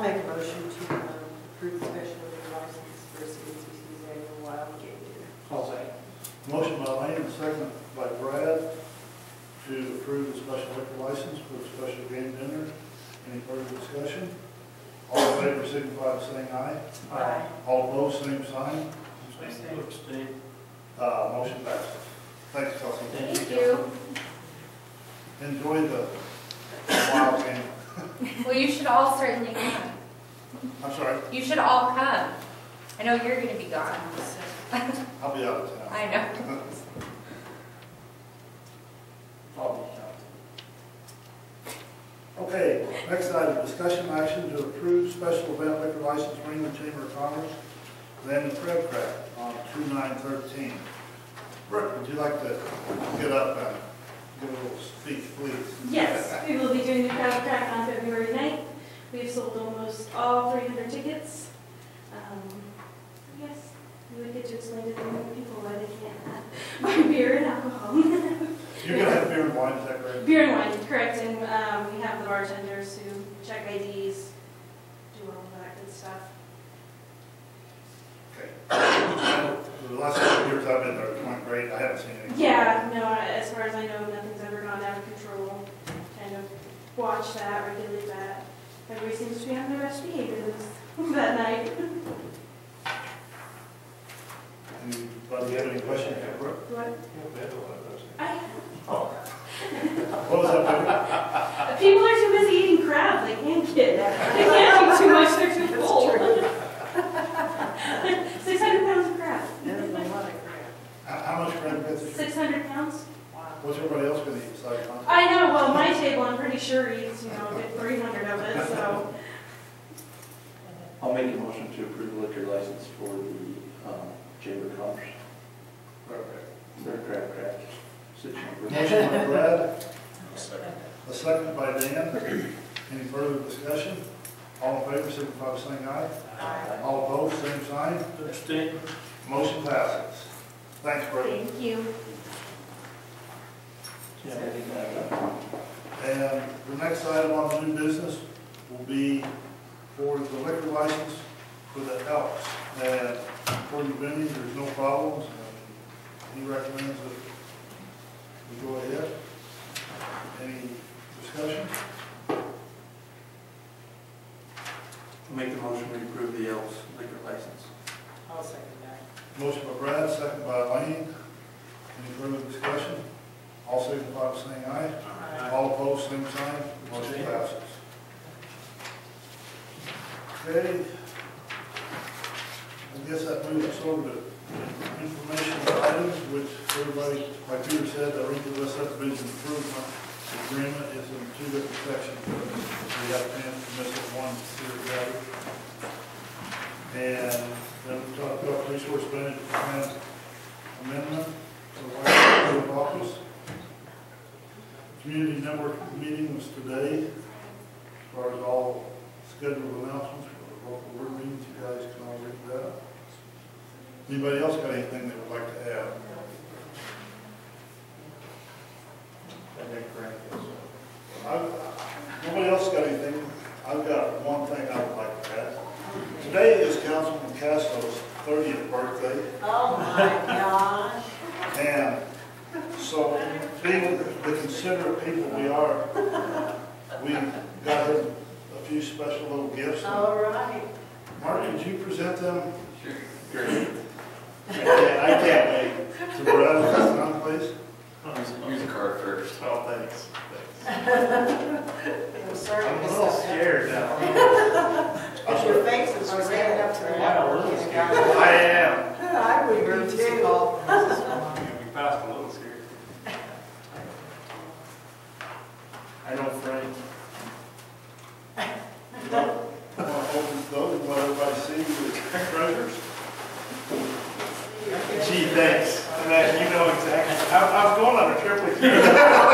make a motion to um, approve the special liquor license for CNCC's annual wild game dinner. I'll second. Motion by Lane, second by Brad, to approve the special liquor license for the special game dinner. Any further discussion? All in favor, signify by saying aye. Aye. All opposed, same sign. Abstain. Abstain. Uh, motion passes. Thanks, Kelsey. Thank Thank you, you. Enjoy the wild game. Well, you should all certainly come. I'm sorry, You should all come. I know you're gonna be gone, so, I'll be out of town. I know. I'll Okay, next item, discussion action to approve special event liquor license Raymond Chamber of Commerce, Land and Crab Craft on two nine thirteen. Brooke, would you like to get up and give a little speech, please? Yes, we will be doing the crowd crack on February 9th. We've sold almost all 300 tickets. Um, Yes, you would get to explain to the young people why they can't have buy beer and alcohol. You're gonna have beer and wine, is that correct? Beer and wine, correct, and um, we have the bartenders who check IDs, do all that good stuff. Okay. The last couple of years I've been there, it's going great, I haven't seen any. Yeah, no, as far as I know, nothing's ever gone out of control. Kind of watch that, regulate that. Everybody seems to be on their best behaviors that night. Anybody have any questions for Brooke? What? I, What was that? people are too busy eating crab, they can't get, they can't eat too much, they're too full. Six hundred pounds of crab. That's a lot of crap. How, how much crab is it? Six hundred pounds? Wow. What's everybody else gonna eat besides mine? I know, well, my table, I'm pretty sure eats, you know, three hundred of it, so. I'll make a motion to approve the liquor license for the um, Chamber of Commerce, Perfect. their crab crack, six members. Motion by Brad. A second by Dan. Any further discussion? All in favor, signify by saying aye. Aye. All opposed, same sign. Abstain. Motion passes. Thanks, Brad. Thank you. Yeah, I think that, uh, And the next item on new business will be for the liquor license for the Elks. And according to Benny, there's no problems, and he recommends that we go ahead. Any discussion? I'll Make the motion to approve the Elks liquor license. I'll second that. Motion by Brad, second by Lane. Any further discussion? All signify by saying aye. Aye. All opposed, same sign. Motion passes. Okay. I guess that moves us over to information items, which everybody, like Peter said, the Rinkley West subdivision improvement agreement is in two different sections. We have to miss it one here together. And then we talked about resource management plan amendment for the White House office. Community network meeting was today. As far as all scheduled announcements for the local board meetings, you guys can all read that. Anybody else got anything they would like to add? I've- Nobody else got anything? I've got one thing I would like to add. Today is Councilman Castro's thirtieth birthday. Oh, my gosh. And so being the considerate people we are, we got him a few special little gifts. Oh. All right. Mark, could you present them? Sure. Great. I can't wait. To Brad, if that's not, please. Use the card first. Oh, thanks. I'm sorry. I'm a this little stuff happened. scared now. But uh, your faces are red up to the I am. I would be too. We passed a little scared. I know Frank. You know, I want to open those, and let everybody see the treasures. Gee, thanks. And that- you know exactly. I, I was going on a trip with you.